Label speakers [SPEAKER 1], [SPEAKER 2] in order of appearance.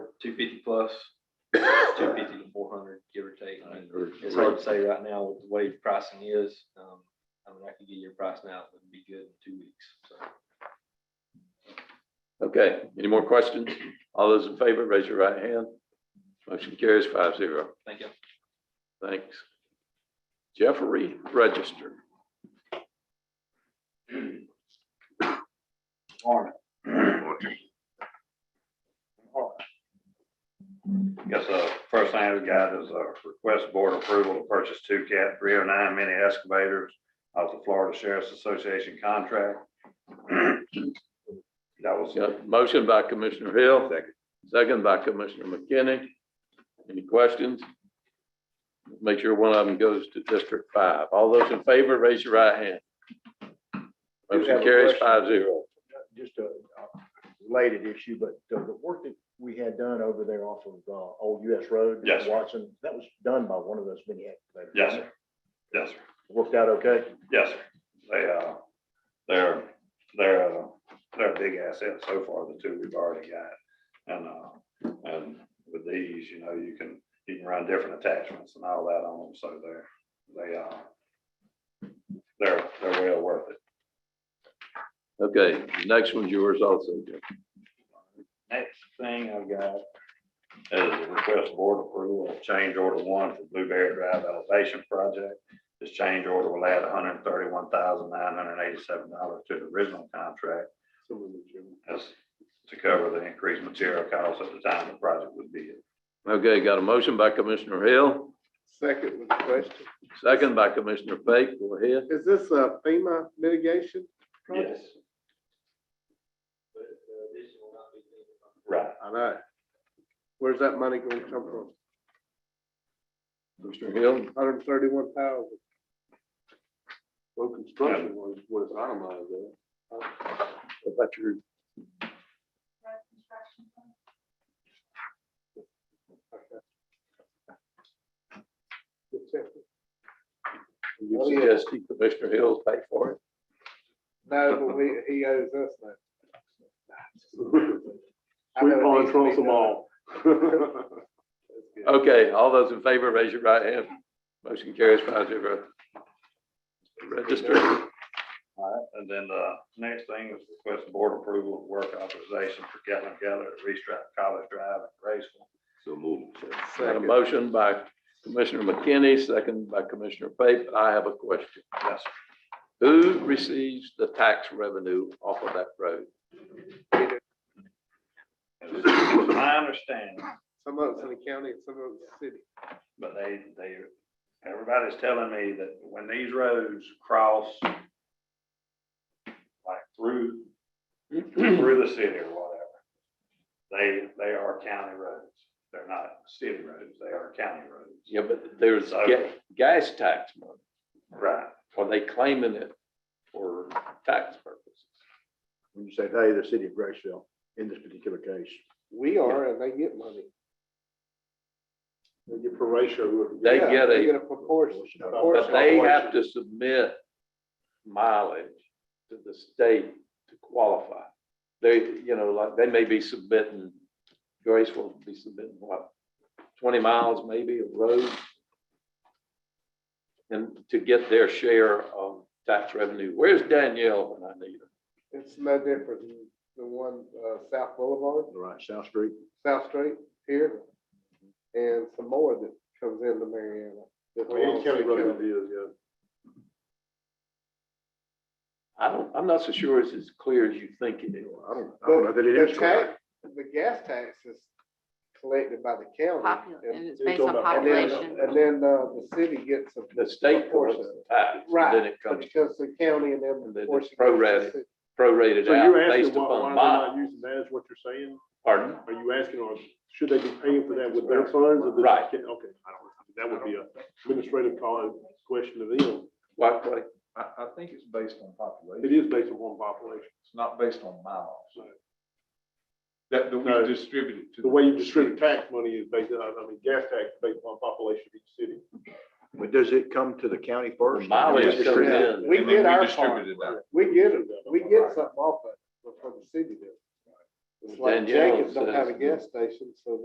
[SPEAKER 1] two fifty plus, two fifty to four hundred, give or take. I mean, It's hard to say right now with the way pricing is. Um, I mean, I could get your price now, it would be good in two weeks, so.
[SPEAKER 2] Okay, any more questions? All those in favor, raise your right hand. Motion carries five zero.
[SPEAKER 1] Thank you.
[SPEAKER 2] Thanks. Jeffrey Register.
[SPEAKER 3] Morning. Guess the first thing we got is a request board approval to purchase two cat three oh nine mini excavators off the Florida Sheriff's Association contract. That was,
[SPEAKER 2] Got a motion by Commissioner Hill. Second. Second by Commissioner McKinney. Any questions? Make sure one of them goes to District Five. All those in favor, raise your right hand.
[SPEAKER 4] Do have a
[SPEAKER 2] Motion carries
[SPEAKER 4] question.
[SPEAKER 2] five zero.
[SPEAKER 4] just a uh, related issue, but the, the work that we had done over there off of, uh, Old US Road.
[SPEAKER 3] Yes, sir.
[SPEAKER 4] Watson, that was done by one of those mini excavators.
[SPEAKER 3] yes, sir. Yes, sir.
[SPEAKER 4] Worked out okay?
[SPEAKER 3] Yes, sir. They, uh, they're, they're, uh, they're a big asset so far, the two we've already got. And, uh, and with these, you know, you can, you can run different attachments and all that on them, so they're, they, uh, they're, they're well worth it.
[SPEAKER 2] Okay, the next one's yours also, Jeff.
[SPEAKER 3] Next thing I've got is a request board approval of change order one for Blueberry Drive Elevation Project. This change order will add hundred and thirty-one thousand nine hundred and eighty-seven dollars to the original contract. That's to cover the increased material costs at the time the project was bid.
[SPEAKER 2] Okay, got a motion by Commissioner Hill,
[SPEAKER 5] Second with the question,
[SPEAKER 2] second by Commissioner Fake. Go ahead.
[SPEAKER 5] is this a FEMA mitigation? project?
[SPEAKER 1] But uh, this will not be.
[SPEAKER 3] Right.
[SPEAKER 5] I know. Where's that money gonna come from?
[SPEAKER 2] Commissioner Hill,
[SPEAKER 5] Hundred and thirty-one thousand. Well, construction was, was itemized there.
[SPEAKER 2] what about your,
[SPEAKER 5] Oh,
[SPEAKER 2] you suggesting Commissioner Hill pay for it?
[SPEAKER 5] No, but we, he owes us that.
[SPEAKER 6] We pawn trolls them all.
[SPEAKER 2] Okay, all those in favor, raise your right hand. Motion carries five zero. Register.
[SPEAKER 3] All right, and then the next thing is request board approval of work authorization for Gatlin Geller at Restrap College Drive in Graceville.
[SPEAKER 2] So moved. Got a
[SPEAKER 5] Second.
[SPEAKER 2] motion by Commissioner McKinney, second by Commissioner Fake. I have a question.
[SPEAKER 3] Yes,
[SPEAKER 2] Who receives the tax revenue off of that road?
[SPEAKER 3] sir. It's My understanding
[SPEAKER 5] Some of it's in the county, some of it's city.
[SPEAKER 3] But they, they, everybody's telling me that when these roads cross like through, through the city or whatever, they, they are county roads. They're not city roads. They are county roads.
[SPEAKER 2] Yeah, but there's ga- gas tax money.
[SPEAKER 3] Right.
[SPEAKER 2] Are they claiming it for tax purposes?
[SPEAKER 4] When you say, hey, the city of Graceville, in this particular case.
[SPEAKER 5] We are, and they get money.
[SPEAKER 4] They get ratio.
[SPEAKER 2] They
[SPEAKER 5] Yeah,
[SPEAKER 2] get
[SPEAKER 5] They
[SPEAKER 2] a-
[SPEAKER 5] get a proportion.
[SPEAKER 2] But they have to submit mileage to the state to qualify. They, you know, like, they may be submitting, Grace will be submitting what, twenty miles maybe of road? And to get their share of tax revenue. Where's Danielle when I need her?
[SPEAKER 5] It's no different than the one, uh, South Boulevard.
[SPEAKER 4] Right, South Street.
[SPEAKER 5] South Street here, and some more that comes into Mariana. that
[SPEAKER 6] Oh,
[SPEAKER 5] belongs to the county.
[SPEAKER 2] I don't, I'm not so sure it's as clear as you think it is.
[SPEAKER 4] I don't, I don't know
[SPEAKER 5] But
[SPEAKER 4] that it
[SPEAKER 5] the
[SPEAKER 4] is. correct.
[SPEAKER 5] tax, the gas tax is collected by the county.
[SPEAKER 7] Popu-
[SPEAKER 5] and-
[SPEAKER 7] and it's
[SPEAKER 4] You're
[SPEAKER 7] based
[SPEAKER 4] talking
[SPEAKER 7] on
[SPEAKER 4] about-
[SPEAKER 5] And then,
[SPEAKER 7] population.
[SPEAKER 5] and then, uh, the city gets a.
[SPEAKER 2] The state
[SPEAKER 5] portion.
[SPEAKER 2] portion of the tax, and then
[SPEAKER 5] Right,
[SPEAKER 2] it
[SPEAKER 5] but
[SPEAKER 2] comes
[SPEAKER 5] it comes to the county and then.
[SPEAKER 2] And
[SPEAKER 5] the
[SPEAKER 2] then
[SPEAKER 5] portion
[SPEAKER 2] it's
[SPEAKER 5] goes to the
[SPEAKER 2] prorated.
[SPEAKER 5] city.
[SPEAKER 2] prorated
[SPEAKER 6] So you're
[SPEAKER 2] out based
[SPEAKER 6] asking why, why
[SPEAKER 2] upon
[SPEAKER 6] they're
[SPEAKER 2] miles.
[SPEAKER 6] not using that is what you're saying?
[SPEAKER 2] Pardon?
[SPEAKER 6] Are you asking, or should they be paying for that with their funds? or this-
[SPEAKER 2] Right.
[SPEAKER 6] Okay, I don't, that would be a administrative call, question to them.
[SPEAKER 2] What, what?
[SPEAKER 8] I, I think it's based on
[SPEAKER 6] It
[SPEAKER 8] population,
[SPEAKER 6] is based upon population,
[SPEAKER 8] it's not based on miles. That, that
[SPEAKER 6] No.
[SPEAKER 8] we distribute it to.
[SPEAKER 6] the way you distribute tax money is based, on I mean, gas tax is based upon population of each city.
[SPEAKER 4] But does it come to the county first?
[SPEAKER 2] Mileage comes
[SPEAKER 5] Yeah,
[SPEAKER 2] in.
[SPEAKER 5] We
[SPEAKER 8] and then
[SPEAKER 5] get our
[SPEAKER 8] distribute
[SPEAKER 5] part,
[SPEAKER 8] it out.
[SPEAKER 5] we get, it. we get something off of it, but from the city does. It's like
[SPEAKER 2] Danielle
[SPEAKER 5] Jenkins don't have a
[SPEAKER 2] says-
[SPEAKER 5] gas station, so